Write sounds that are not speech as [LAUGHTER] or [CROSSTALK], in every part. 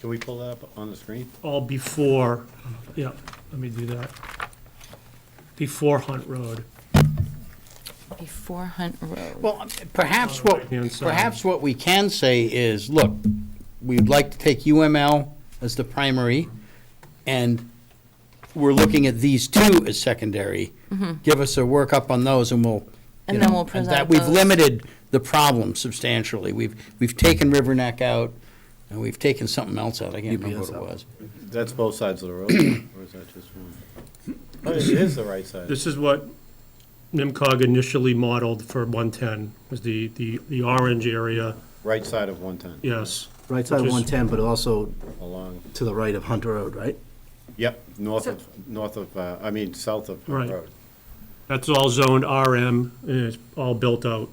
Can we pull that up on the screen? all before, yeah, let me do that. Before Hunt Road. Before Hunt Road. Well, perhaps what, Right-hand side. perhaps what we can say is, look, we'd like to take UML as the primary, and we're looking at these two as secondary. Give us a workup on those, and we'll, you Mm-hmm. And then know, we'll and present that We've those. limited the problem substantially. We've, we've taken River Neck out, and we've taken something else out. I can't remember what it was. That's both sides of the road, or is that just one? Oh, it is the right side. This is what NIMCOG initially modeled for 110, was the, the, the orange area, Right side of 110. yes. Right side of Which is- 110, but also Along, to the right of Hunt Road, right? yep, north of, north of, uh, I mean, south of Hunt Right. Road. That's all zoned RM, and it's all built out.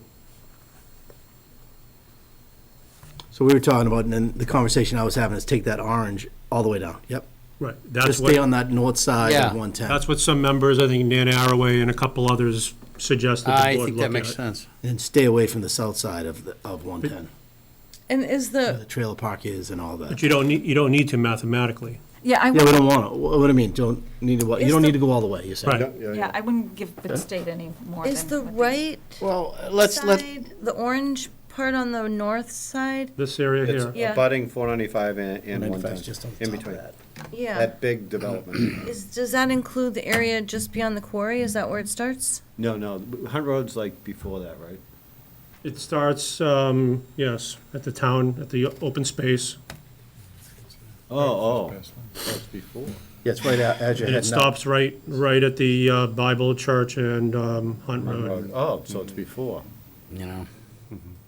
So we were talking about, and then the conversation I was having is take that orange all the way down. Yep. Right, Just that's stay on what, that north side Yeah. of 110. that's what some members, I think Nan Arroway and a couple others suggested the I board think that look makes at. sense. And stay away from the south side of, the- of 110, And is where the the, trailer park is and all But that. you don't need, you don't need to mathematically. Yeah, I Yeah, we wouldn't, don't want to, what do you mean, don't need to, wa- you Is don't the- need to go all the way, you're saying? Right. yeah, I wouldn't give the state any more than. is the what they- right Well, let's, let, side, the orange part on the north side? This area It's here, Yeah. abutting 495 and and 95 is 110, just on the in top of between. that. Yeah. That big development. [CLEARS THROAT] Is, does that include the area just beyond the quarry? Is that where it starts? No, no, Hunt Road's like before that, right? it starts, um, yes, at the town, at the open space, Oh, oh, that's before. Yeah, it's right out as you're and it heading up. stops right, right at the uh, Bible Church and um, Hunt Hunt Road. Road, oh, so it's before. you know,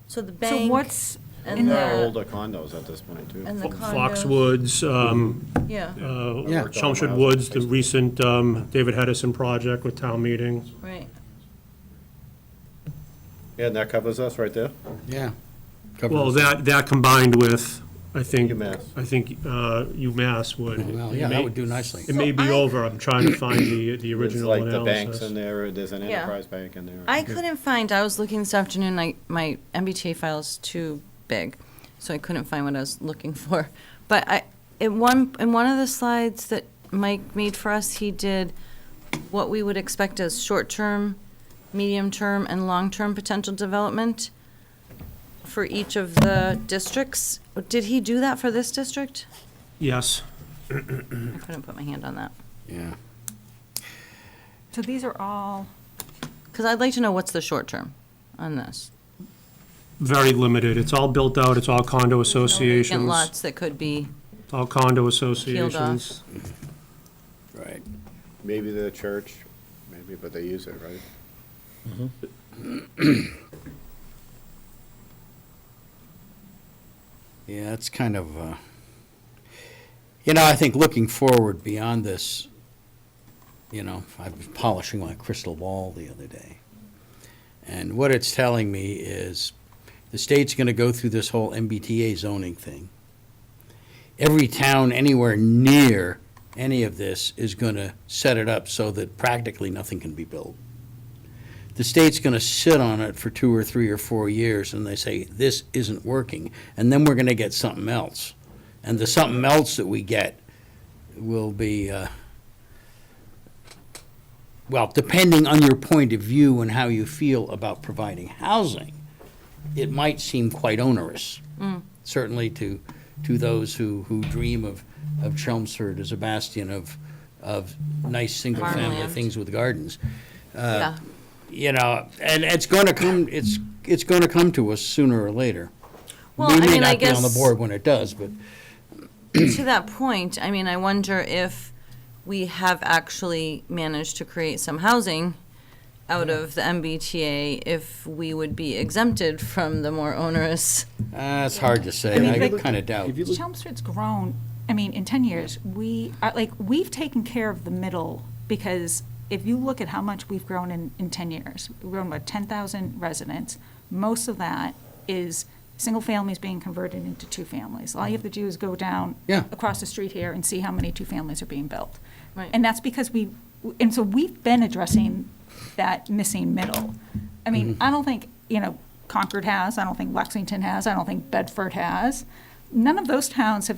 So the bank. So what's and in the- They're the, older condos at this point, too. And the condos, Foxwoods, um, yeah, uh, Mm-hmm. Yeah. Chelmsford Woods, the recent um, David Hedison project with town meeting. right. Yeah, and that covers us right there. yeah. Well, that, that combined with, I think, UMass. I think uh, UMass would. Well, yeah, it that may- would do nicely. It may be So I- over, I'm trying to find the, the There's original like the banks in analysis. there, there's an Yeah. enterprise bank in there. I couldn't find, I was looking this afternoon, I, my MBTA file's too big, so I couldn't find what I was looking [LAUGHS] for. But I, in one, in one of the slides that Mike made for us, he did what we would expect as short-term, medium-term, and long-term potential development for each of the districts. Did he do that for this district? Yes, I couldn't put my hand on that. Yeah. so these are all, Because I'd like to know what's the short-term on this. very limited, it's all built out, it's all condo And associations, lots that could be, It's all condo associations. Right. Maybe the church, maybe, but they use it, right? Yeah, it's kind of, uh, you know, I think looking forward beyond this, you know, I was polishing my crystal ball the other day. And what it's telling me is the state's going to go through this whole MBTA zoning thing. Every town anywhere near any of this is going to set it up so that practically nothing can be built. the state's going to sit on it for two or three or four years, and they say, this isn't working, and then we're going to get something else. And the something else that we get will be, uh, well, depending on your point of view and how you feel about providing housing, it might seem quite onerous, certainly to, to those who, who dream of, of Chelmsford as a bastion of, of nice, single-family Farmland. things with gardens Uh, yeah. you know, and it's going to come, it's, it's going to come to us sooner or later. Well, I We may mean, I not be on the guess- board when it does, but, to that point, I mean, I wonder if we have actually managed to create some housing out of the MBTA, if we would be exempted from the more onerous. uh, it's hard to say, mean, I but- kind of doubt. Chelmsford's grown, I mean, in ten years, we, are like, we've taken care of the middle, because if you look at how much we've grown in, in ten years, we've grown about ten thousand residents, most of that is single families being converted into two families. All you have to do is go down Yeah. across the street here and see how many two families are being built. Right. And that's because we, and so we've been addressing that missing middle. I mean, I don't think, you know, Concord has, I don't think Lexington has, I don't think Bedford has. None of those towns have